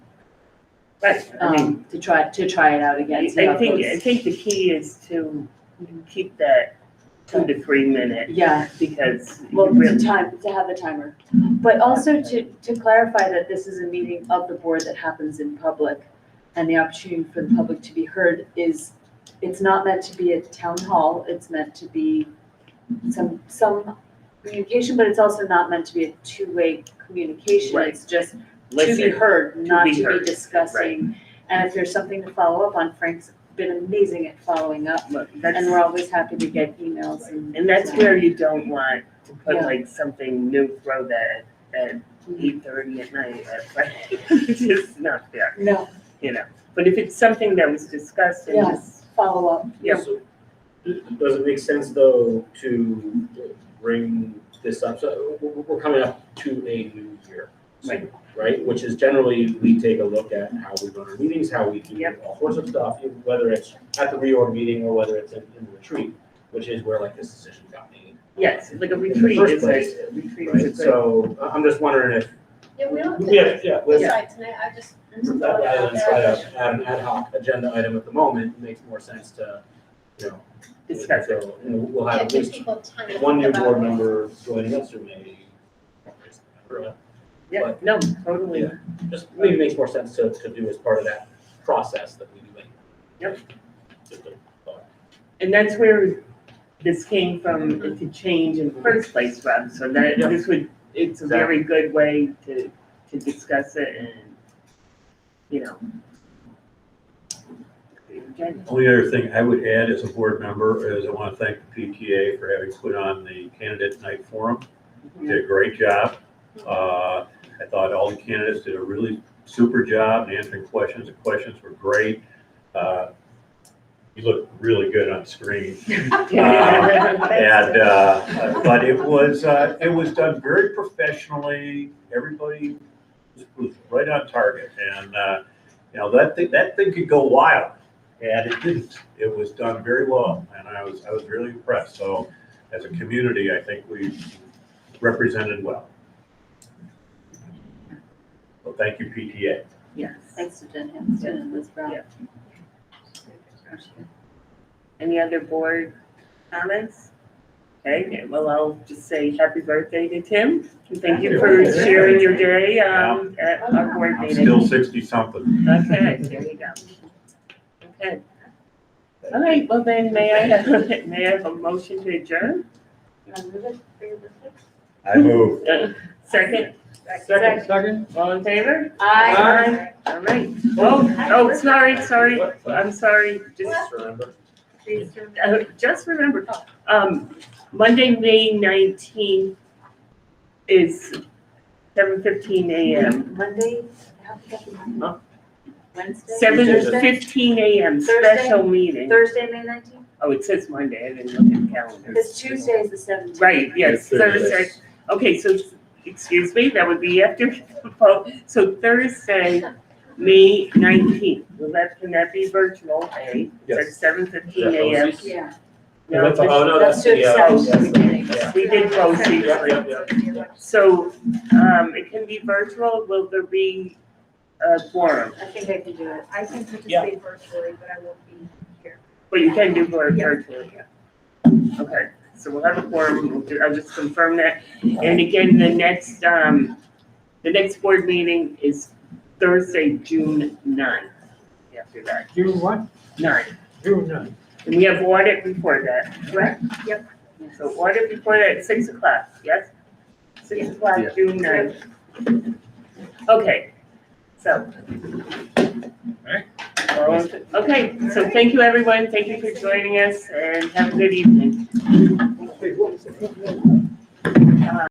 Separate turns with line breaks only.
Right, I mean,
um, to try, to try it out again. see
I
how it
think,
goes.
I think the key is to keep that two to three minute,
Yeah, Mm-hmm.
because
well,
you
to
really,
time, to have the timer. But also to, to clarify that this is a meeting of the board that happens in public. And the opportunity for the public to be heard is, it's not meant to be at town hall, it's meant to be some, some communication, but it's also not meant to be a two-way communication.
Right.
It's just to be
listen,
heard, not
be
to
heard,
be discussing. And if there's something to follow up on, Frank's been amazing at following up.
look,
And we're
that's,
always happy to get emails and.
and that's
so-
where you don't want to put
Yeah.
like something new, throw that at eight thirty at night, that's like, it's just not fair,
No,
you know? But if it's something that was discussed and
Yeah.
just,
follow up.
Yeah.
So, Does it make sense though to bring this up? So we're- we're coming up to a new year.
Right.
Right, which is generally, we take a look at how we run our meetings, how we do
Yep.
all sorts of stuff, whether it's at the reorg meeting or whether it's in in retreat, which is where like this decision got made.
yes, like a
In the
retreat
first
is
place,
a, retreat is a
Right,
good.
so I- I'm just wondering if,
Yeah, we don't
yeah,
have to
yeah, let's
decide tonight, I just. I'm just throwing it
rather
out
than try
there.
to add an ad hoc agenda item at the moment, it makes more sense to, you know.
Discuss it.
So, you know, We'll
Yeah,
have
it
at
gives
least
people time to
one
think
new
about
board
it.
member joining us or maybe.
Yeah, no, totally,
Yeah. Just maybe it makes more sense to, to do as part of that process that we do. anyway.
Yep.
Just a thought.
And that's where this came from, to change in the first place, Rob, so that,
Yeah.
this would, it's a very good way to, to discuss it and, you know. Again,
Only other thing I would add as a board member is I want to thank the PTA for having put on the candidate night forum. You Did a great job. Uh, I thought all the candidates did a really super job in answering questions. The questions were great. Uh, You look really good on screen. And, uh, but it was, uh, it was done very professionally. Everybody was- was right on target. And, uh, you know, that thing, that thing could go wild. And it didn't. It was done very well. And I was, I was really impressed. So as a community, I think we represented well. Well, thank you, PTA.
Yes.
Thanks to Jen Hampson and Liz Brown.
Yeah. Any other board comments? Okay, well, I'll just say happy birthday to Tim, and thank you for sharing your day, um, at our board
I'm
meeting.
still sixty-something.
Okay, there you go. Okay. All right, well then, may I have, may I have a motion to adjourn?
You wanna move it for your birthday?
I move.
Uh, Second?
Second.
Second. All in favor?
Aye.
All right. Oh, oh, sorry, sorry, I'm sorry, just,
Just remember.
Please do.
uh, just remembered. Um, Monday, May nineteenth is seven fifteen AM.
Monday, how we got the Monday?
Huh?
Wednesday?
Seven
Thursday?
fifteen AM,
Thursday?
special meeting.
Thursday, May nineteenth?
Oh, it says Monday, I didn't look at the calendar.
Because Tuesday is the seventeenth.
Right, yes,
Yes, Thursday.
Thursday. Okay, so, excuse me, that would be after the vote. So Thursday, May nineteenth, will that, can that be virtual, eh? At
Yes.
seven fifteen
Yeah,
AM?
Rosie's.
Yeah.
No,
That's- Oh, no,
That's
that's,
to
yeah.
accept
that's-
the beginning.
yeah.
We did vote
Yeah, yeah, yeah.
So, um, it can be virtual, will there be a forum?
I think I can do it.
I can
Yeah.
participate virtually, but I won't be here.
But you can do for
Yeah.
virtual, yeah. Okay, so we'll have a forum, We'll do- I'll just confirm that. And again, the next, um, the next board meeting is Thursday, June ninth, after that,
June what?
nine.
June nine.
And we have audit before that, correct?
Yep.
So audit before that, at six o'clock, yes? Six o'clock, June ninth. Okay, so. All right. Okay, so thank you, everyone, thank you for joining us, and have a good evening. Uh,
Okay, what was the-